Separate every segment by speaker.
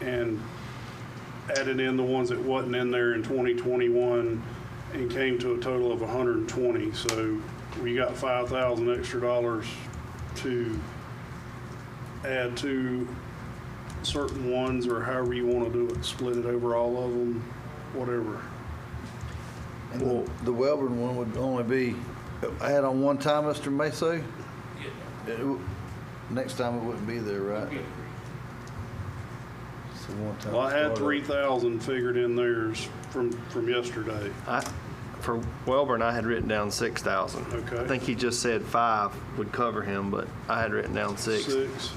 Speaker 1: and added in the ones that wasn't in there in 2021 and came to a total of 120. So we got 5,000 extra dollars to add to certain ones or however you want to do it, split it over all of them, whatever.
Speaker 2: And the- the Welborn one would only be, I had on one time, Mr. Maso? It w- Next time it wouldn't be there, right? So one time.
Speaker 1: Well, I had
Speaker 2: startup.
Speaker 1: 3,000 figured in theirs from, from yesterday.
Speaker 3: I, for Welborn, I had written down six thousand.
Speaker 1: Okay.
Speaker 3: I think he just said five would cover him, but I had written down six.
Speaker 1: Six.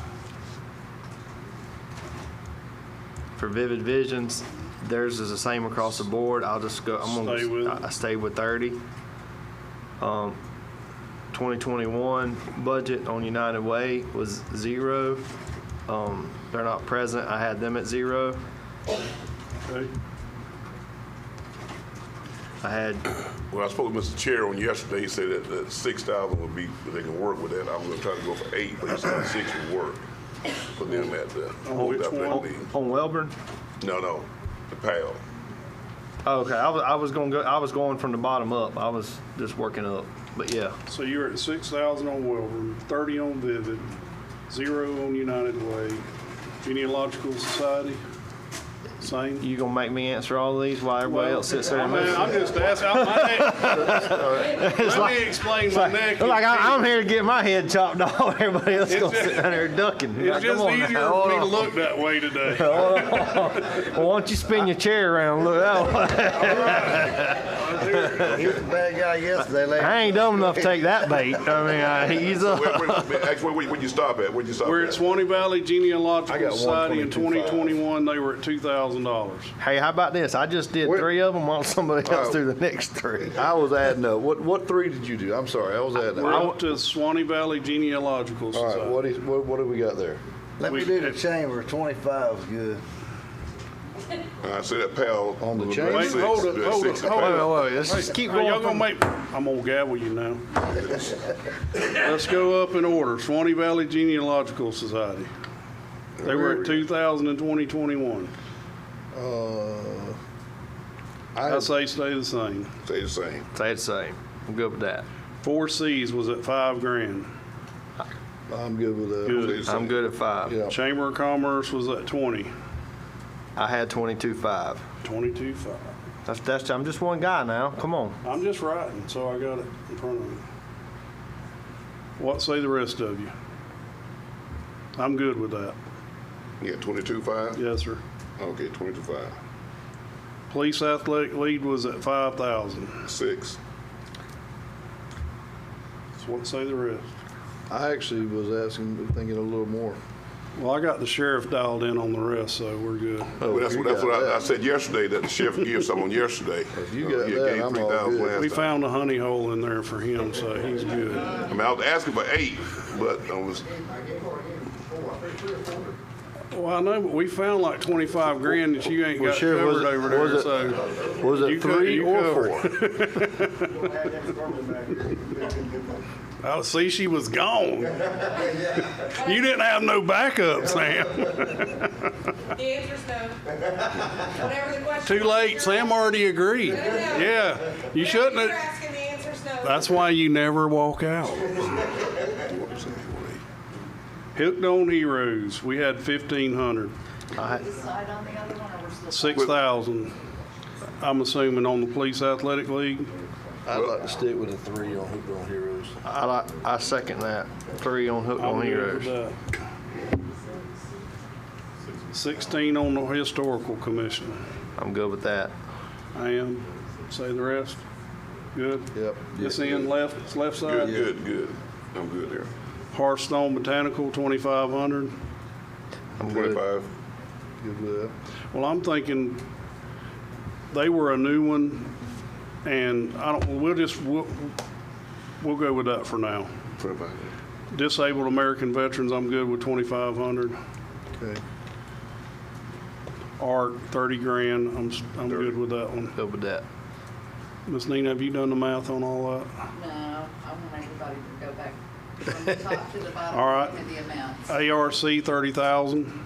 Speaker 3: For Vivid Visions, theirs is the same across the board. I'll just go, I'm
Speaker 1: Stay with
Speaker 3: gonna,
Speaker 1: it.
Speaker 3: I- I stayed with thirty. Um, twenty twenty-one budget on United Way was zero. Um, they're not present. I had them at zero.
Speaker 1: Okay.
Speaker 3: I had
Speaker 4: When I spoke to Mr. Chair on yesterday, he said that, that six thousand would be, they can work with that. I was gonna try to go for eight, but he said six would work for them at the.
Speaker 1: On which one?
Speaker 4: that
Speaker 3: on,
Speaker 4: meeting.
Speaker 3: on Welborn.
Speaker 4: No, no, the PAL.
Speaker 3: Oh, Okay, I was, I was gonna go, I was going from the bottom up. I was just working up, but yeah.
Speaker 1: So you're at 6,000 on Welborn, 30 on Vivid, zero on United Way. Genealogical Society, same.
Speaker 3: You gonna make me answer all these while everybody else sits there?
Speaker 1: I
Speaker 3: and
Speaker 1: mean,
Speaker 3: listens?
Speaker 1: I'm just asking, I'm- I ain't- let me explain my neck.
Speaker 3: Like I, I'm here to get my head chopped off. Everybody else
Speaker 1: It's
Speaker 3: gonna
Speaker 1: just-
Speaker 3: sit down there ducking. Like,
Speaker 1: It's
Speaker 3: come
Speaker 1: just
Speaker 3: on now,
Speaker 1: easier for
Speaker 3: hold
Speaker 1: me to
Speaker 3: on.
Speaker 1: look that way today.
Speaker 3: Well, why don't you spin your chair around? and Look, that way.
Speaker 2: He was a bad guy yesterday, lady.
Speaker 3: I ain't dumb enough to take that bait. I mean, I, he's
Speaker 4: Where,
Speaker 3: up.
Speaker 4: where, actually, where, where'd you stop at? Where'd you stop at?
Speaker 1: We're at Swanee Valley
Speaker 4: I got
Speaker 1: Genealogical
Speaker 4: one
Speaker 1: Society in
Speaker 4: 22,500.
Speaker 1: 2021, they were at $2,000.
Speaker 3: Hey, how about this? I just did
Speaker 5: Where-
Speaker 3: three of them while somebody else
Speaker 1: Oh.
Speaker 3: do the next three.
Speaker 5: I was adding up. What what three did you do? I'm sorry, I was adding
Speaker 1: We're
Speaker 5: up.
Speaker 1: up to Swanee Valley Genealogical
Speaker 5: All right,
Speaker 1: Society.
Speaker 5: what is what, what do we got there?
Speaker 2: Let me
Speaker 1: we-
Speaker 2: do the chamber, twenty-five's good.
Speaker 4: I said that PAL.
Speaker 5: On the
Speaker 4: was
Speaker 5: chain?
Speaker 4: about
Speaker 1: Wait,
Speaker 4: six,
Speaker 1: hold it,
Speaker 4: about
Speaker 1: hold
Speaker 4: six
Speaker 1: it,
Speaker 4: to
Speaker 1: hold
Speaker 3: Wait,
Speaker 4: PAL.
Speaker 3: wait, wait. Let's just keep
Speaker 1: Now,
Speaker 3: going.
Speaker 1: Y'all gonna
Speaker 3: from-
Speaker 1: make, I'm gonna gavel you now. Let's go up in order. Swanee Valley Genealogical Society. They were at 2,000 in 2021.
Speaker 5: Uh,
Speaker 1: I
Speaker 5: I
Speaker 1: say stay the same.
Speaker 4: Stay the same.
Speaker 3: Say the same. I'm good with that.
Speaker 1: Four Cs was at five grand.
Speaker 5: I'm good with that.
Speaker 1: Good.
Speaker 4: Stay the
Speaker 3: I'm
Speaker 4: same.
Speaker 3: good at five.
Speaker 5: Yeah.
Speaker 1: Chamber of Commerce was at 20,
Speaker 3: I had 22 five.
Speaker 1: 22.5.
Speaker 3: That's that's. I'm just one guy now. Come on.
Speaker 1: I'm just writing, so I got it in front of me. What say the rest of you? I'm good with that.
Speaker 4: Yeah, twenty-two five?
Speaker 1: Yes, sir.
Speaker 4: Okay, twenty-two five.
Speaker 1: Police athletic lead was at 5,000.
Speaker 4: Six.
Speaker 1: So what say the rest?
Speaker 5: I actually was asking, thinking a little more.
Speaker 1: Well, I got the sheriff dialed in on the rest, so we're good.
Speaker 4: Well, that's
Speaker 5: if Oh, you
Speaker 4: what, that's
Speaker 5: got
Speaker 4: what I, I
Speaker 5: that.
Speaker 4: said yesterday, that the sheriff gave someone yesterday.
Speaker 5: If you
Speaker 4: Uh,
Speaker 5: got
Speaker 4: he
Speaker 5: that,
Speaker 4: gave
Speaker 5: I'm all
Speaker 4: 3,000
Speaker 5: good.
Speaker 4: last
Speaker 1: We
Speaker 4: time.
Speaker 1: found a honey hole in there for him, so he's good.
Speaker 4: I mean, I was asking for eight, but I was,
Speaker 1: Well, I know, but we found like twenty-five grand that you ain't
Speaker 5: Well,
Speaker 1: got
Speaker 5: Sheriff, was
Speaker 1: covered
Speaker 5: it-
Speaker 1: over there,
Speaker 5: was it-
Speaker 1: so.
Speaker 5: Was
Speaker 1: You
Speaker 5: it
Speaker 1: co-
Speaker 5: three
Speaker 1: you
Speaker 5: or
Speaker 1: covered.
Speaker 5: four?
Speaker 1: I see she was gone. You didn't have no backup, Sam.
Speaker 6: The answer's no. Whatever the question.
Speaker 1: Too late. Sam already agreed. Yeah, you shouldn't
Speaker 6: You're
Speaker 1: have.
Speaker 6: asking, the answer's no.
Speaker 1: That's why you never walk out. Hooked on Heroes, we had fifteen hundred.
Speaker 3: I,
Speaker 7: Decide on the other one, or we're still?
Speaker 1: Six thousand, I'm assuming on the police athletic league.
Speaker 5: I'd like to stick with a three on Hooped on Heroes.
Speaker 3: I like. I second that. Three on hook on heroes.
Speaker 1: Sixteen on the historical commission.
Speaker 3: I'm good with that.
Speaker 1: I am, say the rest. Good.
Speaker 5: Yep.
Speaker 1: This end left, it's left
Speaker 4: good,
Speaker 1: side.
Speaker 4: good, good. I'm good there.
Speaker 1: Hearthstone Botanical, twenty-five hundred.
Speaker 3: I'm good.
Speaker 4: Twenty-five.
Speaker 5: Good with that.
Speaker 1: Well, I'm thinking they were a new one and I don't, we'll just, we'll, we'll go with that for now.
Speaker 4: Twenty-five.
Speaker 1: Disabled American Veterans, I'm good with twenty-five hundred.
Speaker 5: Okay.
Speaker 1: ARC, thirty grand, I'm, s- I'm good with that one.
Speaker 3: Good with that.
Speaker 1: Ms. Nina, have you done the math on all that?
Speaker 7: No, I want everybody to go back from the top to the bottom.
Speaker 1: All right.
Speaker 7: And the amounts.
Speaker 1: ARC, thirty thousand.